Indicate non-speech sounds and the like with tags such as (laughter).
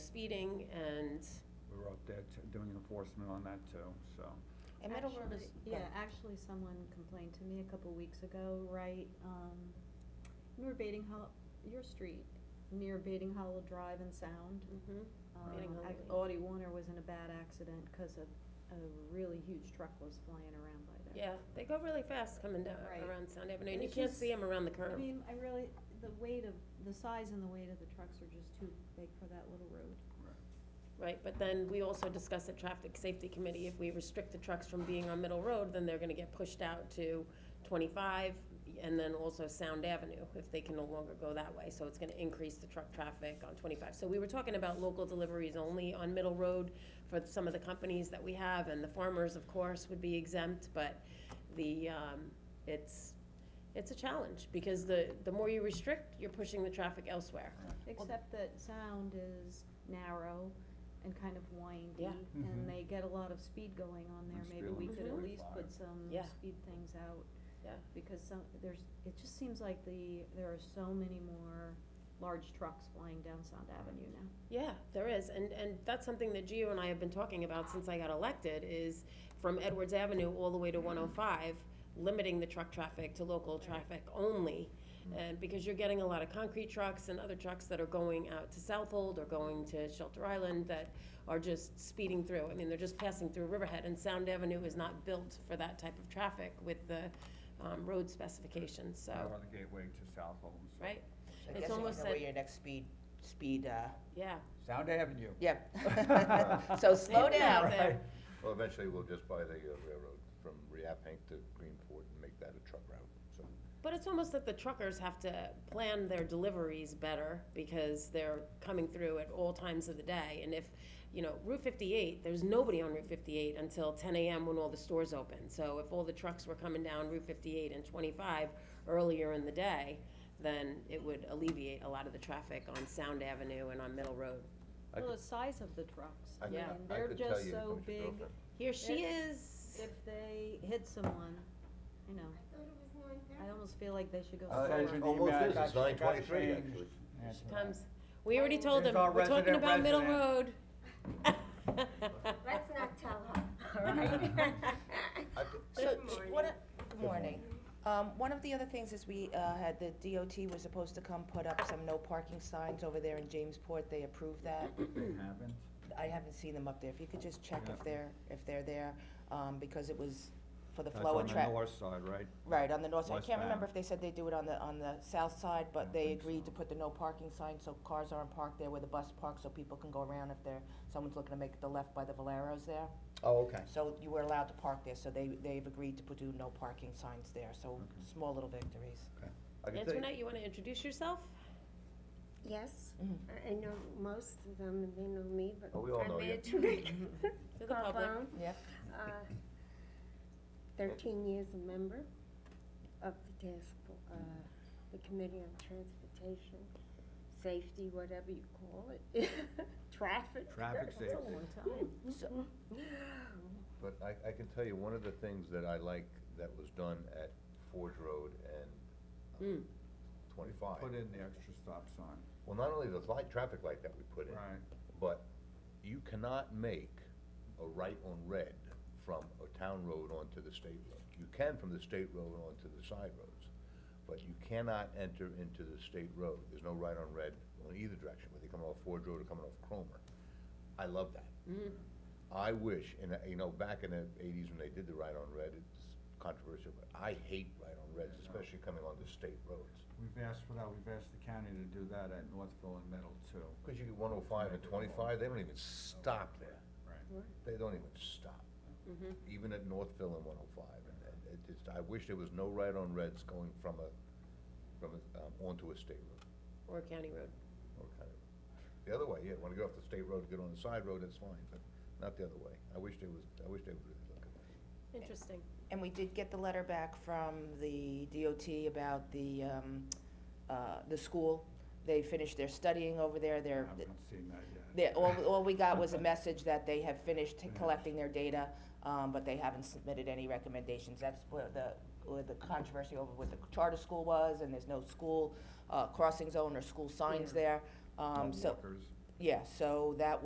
speeding and, We were out there t- doing enforcement on that too, so. and Middle Road is. Actually, Yeah, actually, someone complained to me a couple weeks ago, right, um, near Bating Hollow, your street, near Bating Hollow Drive and Sound. Mhm. um, Bating ac- Hollow. Audie Warner was in a bad accident because a, a really huge truck was flying around by there. Yeah, they go really fast coming down Right. around Sound Avenue, and And you it's can't just- see them around the I curve. mean, I really, the weight of, the size and the weight of the trucks are just too big for that little road. Right, but then we also discussed at Traffic Safety Committee, if we restrict the trucks from being on Middle Road, then they're gonna get pushed out to twenty-five, and then also Sound Avenue, if they can no longer go that way, so it's gonna increase the truck traffic on twenty-five. So we were talking about local deliveries only on Middle Road for some of the companies that we have, and the farmers, of course, would be exempt, but the, um, it's, it's a challenge, because the, the more you restrict, you're pushing the traffic elsewhere. Except that sound is narrow and kind of windy, Yeah. and Mm-hmm. Mhm. they get a lot of speed going on there, And maybe speed we limit could at forty least five. put some Yeah. speed things out. Yeah. Because some, there's, it just seems like the, there are so many more large trucks flying down Sound Avenue now. Yeah, there is, and, and that's something that Gio and I have been talking about since I got elected, is from Edwards Avenue all the way to one oh five, limiting the truck traffic to local traffic only. And because you're getting a lot of concrete trucks and other trucks that are going out to Southold or going to Shelter Island that are just speeding through. I mean, they're just passing through Riverhead, and Sound Avenue is not built for that type of traffic with the, um, road specifications, so, Right on the gateway to South Holmes. right? So I It's guess you almost know where like- your next speed, speed, uh, Yeah. Sound Avenue. yep. (laughs) (laughs) So slow Get out down. there. Well, eventually, we'll just buy the uh, railroad from Reappank to Greenport and make that a truck route, so. But it's almost that the truckers have to plan their deliveries better because they're coming through at all times of the day. And if, you know, Route fifty-eight, there's nobody on Route fifty-eight until ten AM when all the stores open. So if all the trucks were coming down Route fifty-eight and twenty-five earlier in the day, then it would alleviate a lot of the traffic on Sound Avenue and on Middle Road. I Well, the size of the trucks, I I could- mean, Yeah. I they're could tell just you how so much big, girlfriend- Here she is. if they hit someone, I know, thought it was nine thirty. I almost feel like they should go. Uh, slower. it's almost is, it's 9:23 actually. She comes. We already told She's him, our we're talking resident about Middle Road. resident. (laughs) Let's not tell her, (laughs) all right? (laughs) I could- So, Good sh- morning. what, a- good morning. Um, one of the other things is we, uh, had, the DOT was supposed to come put up some no parking signs over there in Jamesport, they approved that. They haven't. I haven't seen them up there, if you could just check Yeah. if they're, if they're there, um, because it was for the That's flow on of the traffic. north side, right? Right, on the north side, I can't Westbound. remember if they said they do it on the, on the south side, don't but they think agreed so. to put the no parking sign, so cars aren't parked there where the bus parks, so people can go around if they're, someone's looking to make the left by the Valeros there. Oh, okay. So you were allowed to park there, so they, they've agreed to put do no parking signs there, so small little victories. I could tell you- Antoinette, you wanna introduce yourself? Yes, Mhm. I- I know most of them, and they know me, but Oh, we all I'm know you. bad to (laughs) make (laughs) To the public. Carbone, Yep. uh, thirteen years a member of the task, for- uh, the Committee on Transportation, Safety, whatever you call it, (laughs) traffic. (laughs) Traffic That's a safety. long time. So- But I, I can tell you, one of the things that I like that was done at Forge Road Hmm. and um, Put twenty-five, in the extra stop sign. well, not only the light, traffic light that we put in, Right. but you cannot make a right on red from a town road onto the state road. You can from the state road onto the side roads, but you cannot enter into the state road. There's no right on red on either direction, whether you're coming off Ford Road or coming off Cromer. I love that. I wish, and, uh, you know, back in the eighties when they did the right on red, it's controversial, but I hate right on reds, especially coming onto state roads. We've asked for that, we've asked the county to do that at Northville and Middle too. Cause you get one oh five and twenty-five, they don't even stop there. Right. They don't even stop. Even at Northville and one oh five, and, and it just, I wish there was no right on reds going from a, from a, um, onto a state road, Or a county road. or kind of. The other way, yeah, wanna get off the state road, get on the side road, that's fine, but not the other way. I wish there was, I wish they would look at that. Interesting. And we did get the letter back from the DOT about the, um, uh, the school. They finished their studying over there, I they're, haven't seen that yet. they, all, all we got was a message that they have finished collecting their data, um, but they haven't submitted any recommendations. That's where the, where the controversy over what the charter school was, and there's no school, uh, crossing zone or school signs there. No Um, so, walkers. Yeah, so that